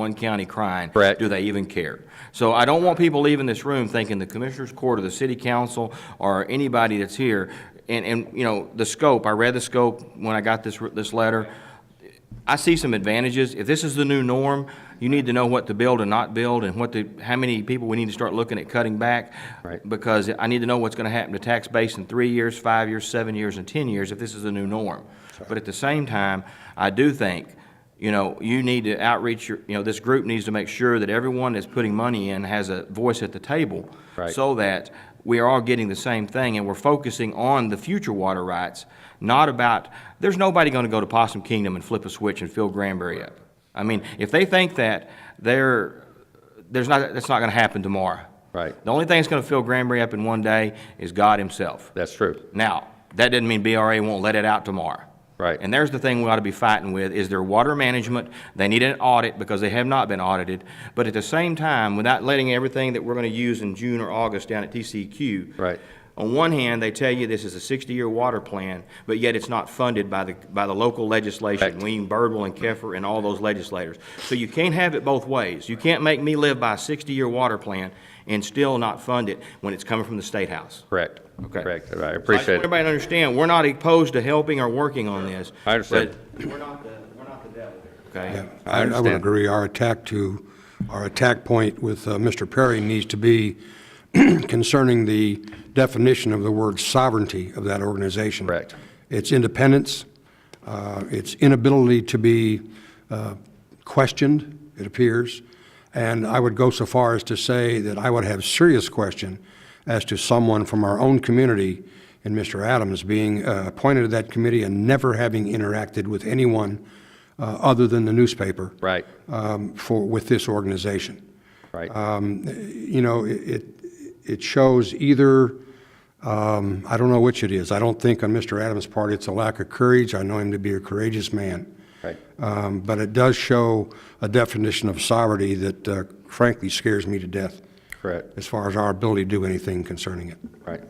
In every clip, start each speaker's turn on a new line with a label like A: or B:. A: one county crying.
B: Correct.
A: Do they even care? So I don't want people leaving this room thinking the Commissioners Court or the City Council or anybody that's here, and, and, you know, the scope, I read the scope when I got this, this letter. I see some advantages. If this is the new norm, you need to know what to build and not build, and what the, how many people we need to start looking at cutting back.
B: Right.
A: Because I need to know what's gonna happen to tax base in three years, five years, seven years, and ten years, if this is the new norm. But at the same time, I do think, you know, you need to outreach your, you know, this group needs to make sure that everyone that's putting money in has a voice at the table.
B: Right.
A: So that we are all getting the same thing, and we're focusing on the future water rights, not about, there's nobody gonna go to Possum Kingdom and flip a switch and fill Granbury up. I mean, if they think that, they're, there's not, that's not gonna happen tomorrow.
B: Right.
A: The only thing that's gonna fill Granbury up in one day is God himself.
B: That's true.
A: Now, that doesn't mean BRA won't let it out tomorrow.
B: Right.
A: And there's the thing we ought to be fighting with, is their water management. They need an audit because they have not been audited. But at the same time, without letting everything that we're going to use in June or August down at TCQ.
B: Right.
A: On one hand, they tell you this is a 60-year water plan, but yet it's not funded by the, by the local legislation.
B: Correct.
A: Ween, Birdwell, and Keffer, and all those legislators. So you can't have it both ways. You can't make me live by a 60-year water plan and still not fund it when it's coming from the State House.
B: Correct.
A: Okay.
B: Correct.
A: So
B: I
A: I just want
B: appreciate it.
A: Everybody to understand, we're not opposed to helping or working on this.
B: I understand.
A: but We're not the, we're not the devil here, okay?
C: I I would
B: understand.
C: agree, our attack to, our attack point with uh, Mr. Perry needs to be concerning the definition of the word sovereignty of that organization.
B: Correct.
C: Its independence, uh, its inability to be uh, questioned, it appears, and I would go so far as to say that I would have serious question as to someone from our own community and Mr. Adams being uh, appointed to that committee and never having interacted with anyone uh, other than the newspaper.
B: Right.
C: um, For, with this organization
B: Right.
A: Uh,
C: you know, it, it- it shows either, um, I don't know which it is. I don't think on Mr. Adams' part it's a lack of courage. I know him to be a courageous man.
B: Right.
C: Um, But it does show a definition of sovereignty that uh, frankly scares me to death
B: Correct.
C: as far as our ability to do anything concerning it.
B: Right.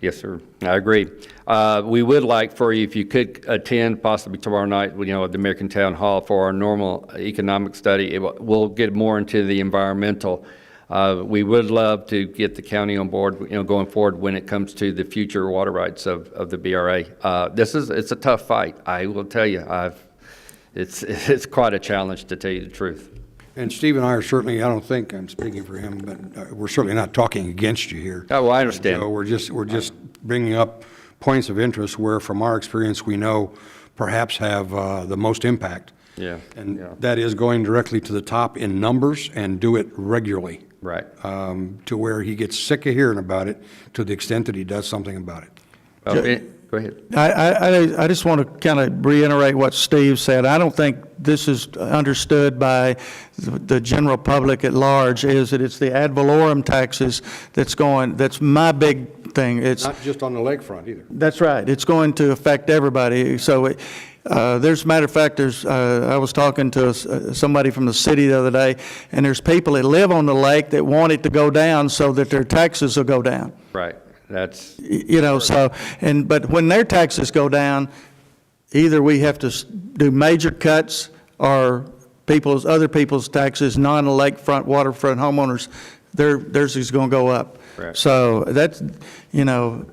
B: Yes, sir. I agree. Uh, We would like for you, if you could attend possibly tomorrow night, you know, at the American Town Hall for our normal economic study. It will- We'll get more into the environmental. Uh, We would love to get the county on board, you know, going forward when it comes to the future water rights of, of the BRA. Uh, This is, it's a tough fight. I will tell you, I've, it's, it's quite a challenge to tell you the truth.
C: And Steve and I are certainly, I don't think I'm speaking for him, but uh, we're certainly not talking against you here.
B: Oh, well, I understand.
C: So we're just, we're just bringing up points of interest where, from our experience, we know perhaps have uh, the most impact.
B: Yeah,
C: And
B: yeah.
C: that is going directly to the top in numbers and do it regularly.
B: Right.
C: Um, To where he gets sick of hearing about it, to the extent that he does something about it.
B: Well, eh, Go ahead.
D: I- I, I, I just want to kind of reiterate what Steve said. I don't think this is understood by the the general public at large, is that it's the ad valorem taxes that's going, that's my big thing. It's,
C: Not just on the lakefront either.
D: that's right. It's going to affect everybody. So it- uh, there's, matter of fact, there's, uh, I was talking to s- uh, somebody from the city the other day, and there's people that live on the lake that want it to go down so that their taxes will go down.
B: Right. That's,
D: Y- you know, so, and, but when their taxes go down, either we have to s- do major cuts or people's, other people's taxes, non-lakefront, waterfront homeowners, their, theirs is going to go up.
B: Correct.
D: So that's, you know,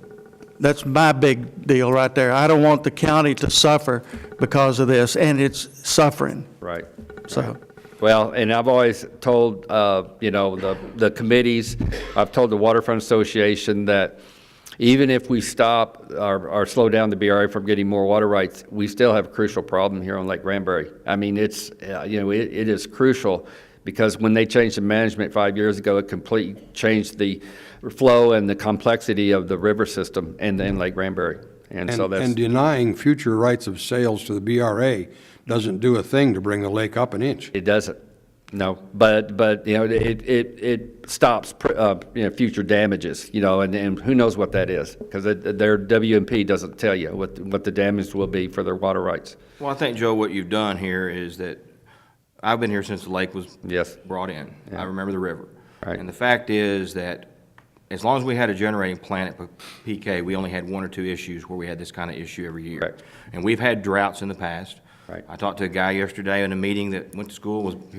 D: that's my big deal right there. I don't want the county to suffer because of this, and it's suffering,
B: right.
D: so.
B: Well, and I've always told, uh, you know, the, the committees, I've told the Waterfront Association that even if we stop or, or slow down the BRA from getting more water rights, we still have a crucial problem here on Lake Granbury. I mean, it's, uh, you know, it, it is crucial because when they changed the management five years ago, it completely changed the flow and the complexity of the river system and, and Lake Granbury. And so that's,
C: And denying future rights of sales to the BRA doesn't do a thing to bring the lake up an inch.
B: It doesn't, no. But, but, you know, it, it, it stops, pr- uh, you know, future damages, you know, and, and who knows what that is? Because their WMP doesn't tell you what, what the damage will be for their water rights.
A: Well, I think, Joe, what you've done here is that, I've been here since the lake was
B: Yes.
A: brought in. I remember the river.
B: Right.
A: And the fact is that as long as we had a generating plant at P- PK, we only had one or two issues where we had this kind of issue every year.
B: Correct.
A: And we've had droughts in the past.
B: Right.
A: I talked to a guy yesterday in a meeting that went to school, was